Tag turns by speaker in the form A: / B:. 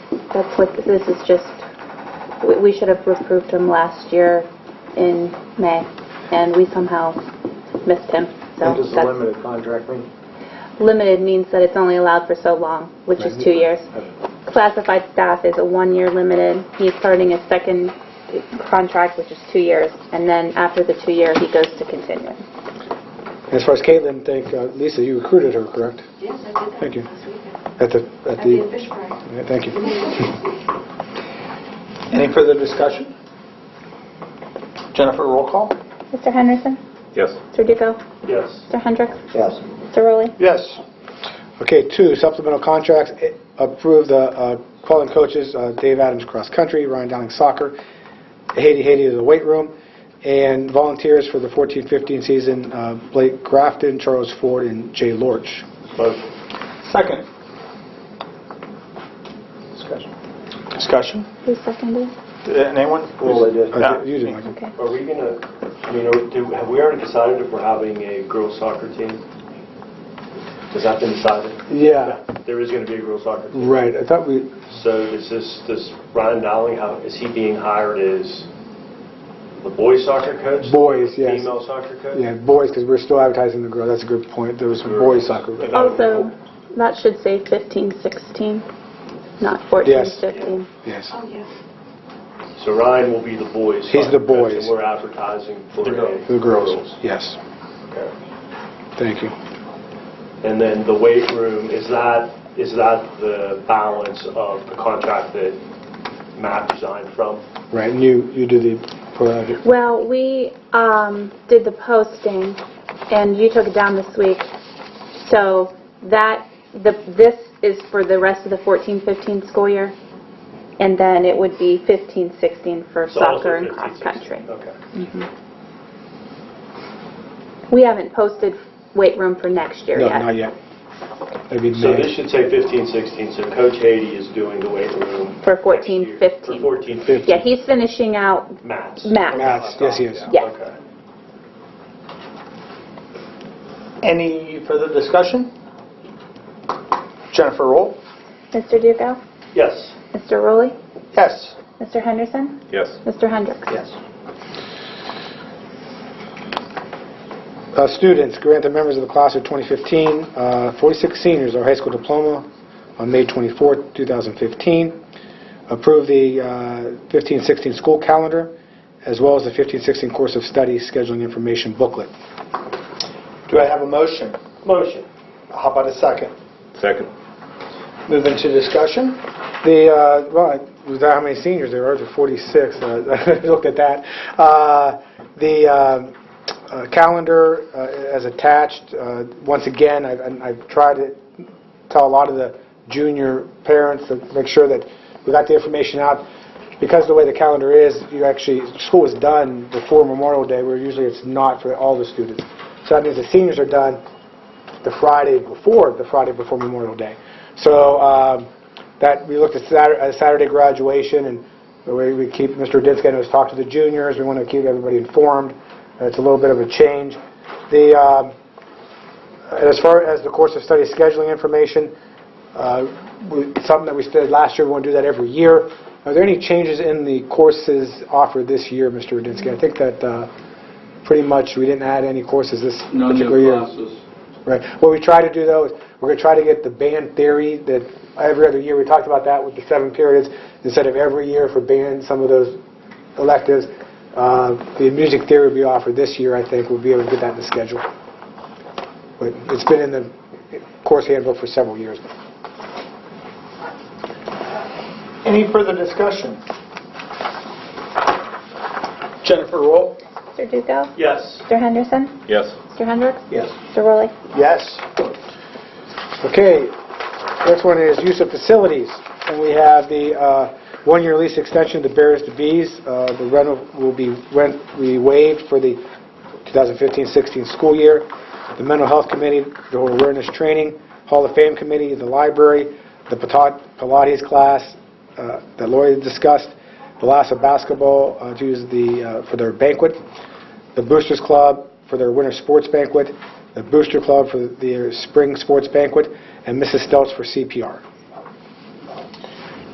A: That's what, this is just, we- we should have approved him last year in May, and we somehow missed him. So
B: What does the
A: that's-
B: limited contract mean?
A: Limited means that it's only allowed for so long, which is two years.
B: Uh,
A: Classified staff is a one-year limited. He's starting his second contract, which is two years, and then after the two year, he goes to continuing.
C: As far as Caitlin, thank, uh, Lisa, you recruited her, correct?
D: Yes, I did that.
C: Thank you.
D: last weekend.
C: At the, at
D: I'd be a
C: the,
D: fish fry.
C: yeah, thank you. Any further discussion? Jennifer, roll call?
A: Mr. Henderson?
E: Yes.
A: Mr. Duco?
E: Yes.
A: Mr. Hendricks?
B: Yes.
A: Mr. Rowley?
C: Yes. Okay, two, supplemental contracts, eh, approve the uh, Quellen coaches, uh, Dave Adams cross country, Ryan Downing soccer, Haiti Haiti to the weight room, and volunteers for the 14-15 season, uh, Blake Grafton, Charles Ford, and Jay Lorch.
E: Motion.
C: Second. Discussion. Discussion?
A: Who seconded?
F: Uh,
C: Anyone?
E: Well, I did.
C: Uh, You did, Michael.
A: Okay.
E: Are we gonna, I mean, are- do- have we already decided if we're having a girls soccer team? Has that been decided?
C: Yeah,
E: There is gonna be a girls soccer team.
C: right, I thought we,
E: So is this, this Ryan Dowling, how, is he being hired as the boys soccer coach?
C: Boys, yes.
E: Female soccer coach?
C: yeah, boys, because we're still advertising the girls, that's a good point, there was boys soccer.
E: And that would be
A: Also, that should say 15, 16, not 14,
C: Yes.
A: 15.
C: Yes.
D: Oh, yeah.
E: So Ryan will be the boys.
C: He's the
E: soccer coach,
C: boys.
E: And we're advertising for
F: The girls.
C: The girls, yes,
E: Okay.
C: thank you.
E: And then the weight room, is that, is that the balance of the contract that Matt resigned from?
C: Right, and you, you do the, project.
A: Well, we um, did the posting, and you took it down this week. So that, the this is for the rest of the 14, 15 school year, and then it would be 15, 16 for
E: So all of
A: soccer
E: the
A: and
E: 15,
A: cross country.
E: 16. Okay.
A: We haven't posted weight room for next year
C: no,
A: yet.
C: not yet. That'd be
E: So this
C: May.
E: should say 15, 16, so Coach Haiti is doing the weight room.
A: For 14,
E: next year.
A: 15.
E: For 14, 15.
A: Yeah, he's finishing out
E: Matt's.
A: Matt's.
C: Matt's, yes, he is.
A: Yes.
E: Okay.
F: Any further discussion? Jennifer, roll.
A: Mr. Duco?
E: Yes.
A: Mr. Rowley?
F: Yes.
A: Mr. Henderson?
E: Yes.
A: Mr. Hendricks?
B: Yes.
C: Uh, Students, grant the members of the class of 2015, uh, 46 seniors, our high school diploma on May 24, 2015. Approve the 15-16 school calendar, as well as the 15-16 course of study scheduling information booklet.
F: Do I have a motion?
E: Motion.
F: How about a second?
E: Second.
F: Move into discussion.
C: The, uh, well, I- was that how many seniors there are? There are 46. uh, Look at that. Uh, The um, uh, calendar uh, as attached, uh, once again, I've- and I've tried to tell a lot of the junior parents to make sure that we got the information out. Because the way the calendar is, you actually, school is done before Memorial Day, where usually it's not for all the students. So that means the seniors are done, the Friday before, the Friday before Memorial Day. So um, that, we looked at Satur- uh, Saturday graduation, and the way we keep, Mr. Ditzke has talked to the juniors, we want to keep everybody informed, Uh, it's a little bit of a change. The, um, and as far as the course of study scheduling information, uh, we- something that we did last year, we want to do that every year. Are there any changes in the courses offered this year, Mr. Rudinsky? I think that uh, pretty much we didn't add any courses this
G: No new
C: particular year.
G: classes.
C: Right. What we try to do, though, is we're going to try to get the band theory that every other year, we talked about that with the seven periods, instead of every year for band, some of those electives. Uh, The music theory we offer this year, I think, we'll be able to get that in the schedule. But it's been in the course handbook for several years.
F: Any further discussion? Jennifer, roll.
A: Mr. Duco?
E: Yes.
A: Mr. Henderson?
E: Yes.
A: Mr. Hendricks?
F: Yes.
A: Mr. Rowley?
F: Yes.
C: Okay, next one is use of facilities, and we have the uh, one-year lease extension to Bears to Bees. Uh, The rental will be, rent we waived for the 2015-16 school year. The Mental Health Committee, the Awareness Training, Hall of Fame Committee, the library, the Pata- Pilates class uh, that Lori discussed, the Lassa Basketball uh, to use the, uh, for their banquet the Boosters Club for their winter sports banquet, the Booster Club for their spring sports banquet, and Mrs. Stelz for CPR.